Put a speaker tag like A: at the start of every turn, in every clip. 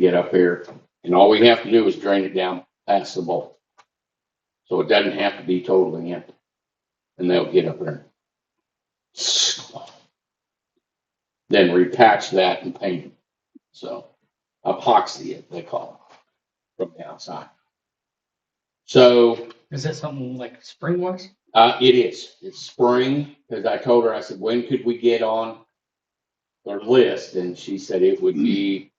A: get up here. And all we have to do is drain it down past the bowl. So it doesn't have to be totally empty. And they'll get up there. Then repatch that and paint it. So epoxy it, they call it, from the outside. So
B: Is that something like spring wash?
A: uh, it is, it's spring, because I told her, I said, when could we get on their list? And she said it would be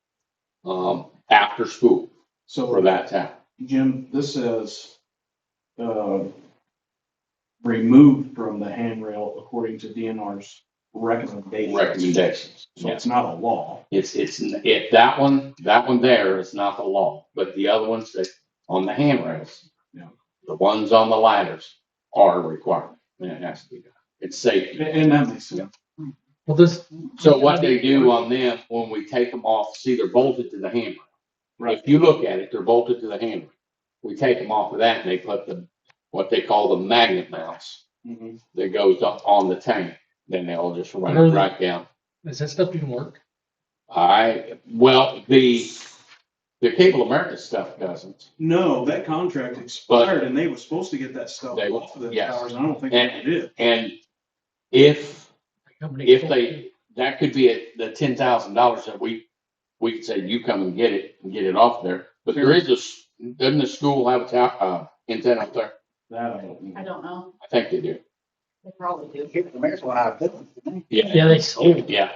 A: um, after school for
C: So
A: that time.
C: Jim, this says, uh, removed from the handrail according to DNR's recommendation.
A: recommendations.
C: So it's not a law.
A: It's, it's, it, that one, that one there is not the law, but the other ones that, on the handrails.
C: Yeah.
A: The ones on the ladders are required, and it has to be done. It's
C: And,
A: safety.
C: and that makes sense.
B: Well, this.
A: So what they do on them, when we take them off, see, they're bolted to the handrail. If you look at it, they're bolted to the handrail. We take them off of that and they put the, what they call the magnet mounts
C: Mhm.
A: that goes up on the tank. Then they'll just run
B: Really?
A: it right down.
B: Is that stuff even work?
A: I, well, the, the Cable America stuff doesn't.
C: No, that contract expired and they were supposed to get that stuff
A: They-
C: off of the
A: yes.
C: towers. and I don't think they
A: And-
C: did.
A: And if,
B: Company-
A: if they, that could be it, the ten thousand dollars that we, we could say, you come and get it, and get it off there. But there is a, s- doesn't the school have a town, uh, antenna up there?
C: That I don't
D: I
C: know.
D: don't know.
A: I think they do.
D: They probably do.
E: Here's the mayor's one out of it.
A: Yeah,
B: Yeah, they sold it.
A: yeah.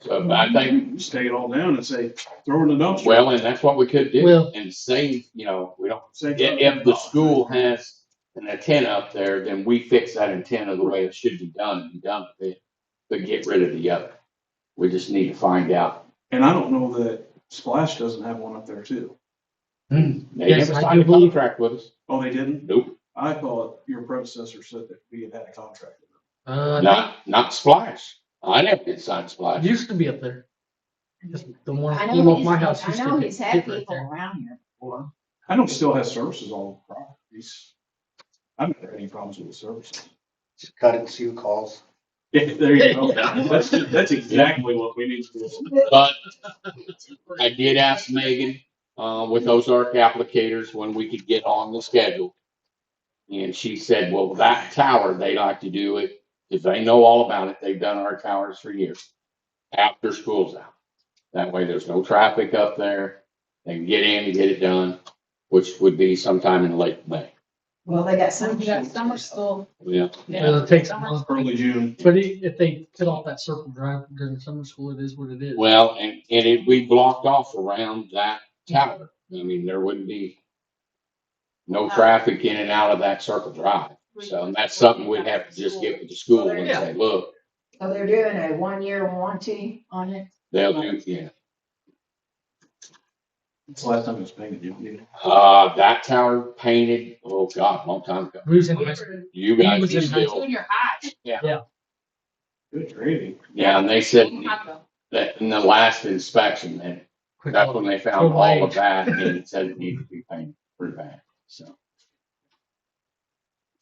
A: So but I think,
C: You Just take it all down and say, throw it in the dumpster.
A: well, and that's what we could do
B: Well-
A: and save, you know, we don't,
C: Say-
A: if, if the school has an antenna up there, then we fix that antenna the way it should be done and be done with it. But get rid of the other. We just need to find out.
C: And I don't know that Splash doesn't have one up there too.
A: They
B: Yes,
A: never
B: I
A: signed
B: do
A: a
B: believe-
A: contract with us.
C: Oh, they didn't?
A: Nope.
C: I thought your predecessor said that we had had a contract.
B: Uh, I
A: Not, not Splash. I never did sign
B: think
A: Splash.
B: it used to be up there. Just the one
D: I
B: that came
D: know
B: off
D: he's,
B: my house.
D: I
B: used to
D: know
B: be
D: he's had
B: right there.
D: people around here before.
C: I don't still have services all the properties. I've never had any problems with the services.
E: Just Cut it and see who calls.
C: Yeah, there you go.
A: Yeah.
C: That's, that's exactly what we need to do.
A: But I did ask Megan, uh, with Ozark applicators when we could get on the schedule. And she said, well, that tower, they like to do it because they know all about it. They've done our towers for years. After school's out. That way there's no traffic up there. They can get in and get it done, which would be sometime in late May.
D: Well, they got
F: Some,
D: some.
F: you got summer school.
A: Yeah.
B: Well, it takes a month.
C: Early June.
B: But i- if they cut off that circle drive during summer school, it is what it is.
A: Well, and, and it, we blocked off around that tower. I mean, there wouldn't be no traffic in and out of that circle drive. So and that's something we'd have to just get with the school and say, look,
D: So they're doing a one-year warranty on it.
A: they'll do, yeah.
C: It's the last time it was painted, you know.
A: Uh, that tower painted, oh God, long time ago.
B: We was in high school.
F: Junior
A: You
B: He
A: guys
B: was
A: are
B: in high
A: still,
F: high.
C: Good gravy.
A: yeah, and they said
F: Hot
A: that in the last inspection, and
B: Quick
A: that's
B: look.
A: when they found all of that and it said it needed to be painted pretty bad, so.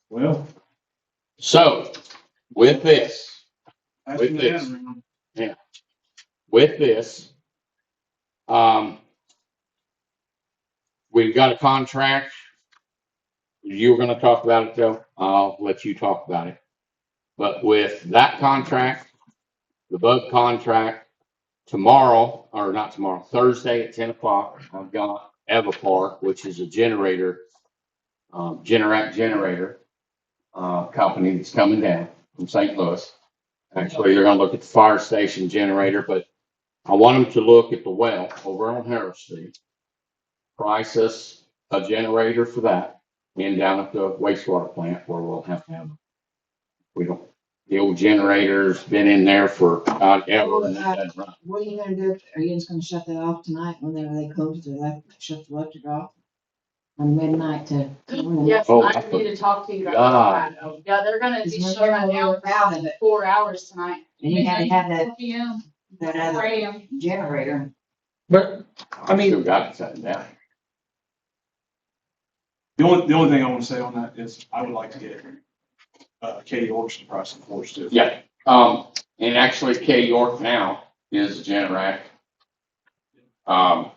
C: Well.
A: So with this,
C: that's
A: With
C: what
A: this.
C: I had.
A: with this. Um, we've got a contract. You were gonna talk about it, Joe. I'll let you talk about it. But with that contract, the bug contract, tomorrow, or not tomorrow, Thursday at ten o'clock, I've got Evapar, which is a generator, um, Generac generator, uh, company that's coming down from St. Louis. Actually, they're gonna look at the fire station generator, but I want them to look at the well over on Harris Street. Price us a generator for that and down at the wastewater plant where we'll have to have. We don't, the old generator's been in there for God ever and that doesn't run.
D: What are you gonna do? Are you just gonna shut that off tonight when they, they close the, elec- shut the electric off? On midnight to.
F: Yes,
A: Oh,
F: I
A: I
F: need to talk to you
A: God.
F: about that. Yeah, they're gonna be
D: There's no
F: shutting
D: way
F: down
D: out of it.
F: four hours tonight.
D: And you had to have that,
F: 4 PM,
D: that
F: 4
D: other
F: AM.
D: generator.
B: But I mean-
A: Still got it set down.
C: The only, the only thing I want to say on that is I would like to get, uh, Katie Orchard price and force too.
A: Yeah, um, and actually Kay York now is a Generac. Um,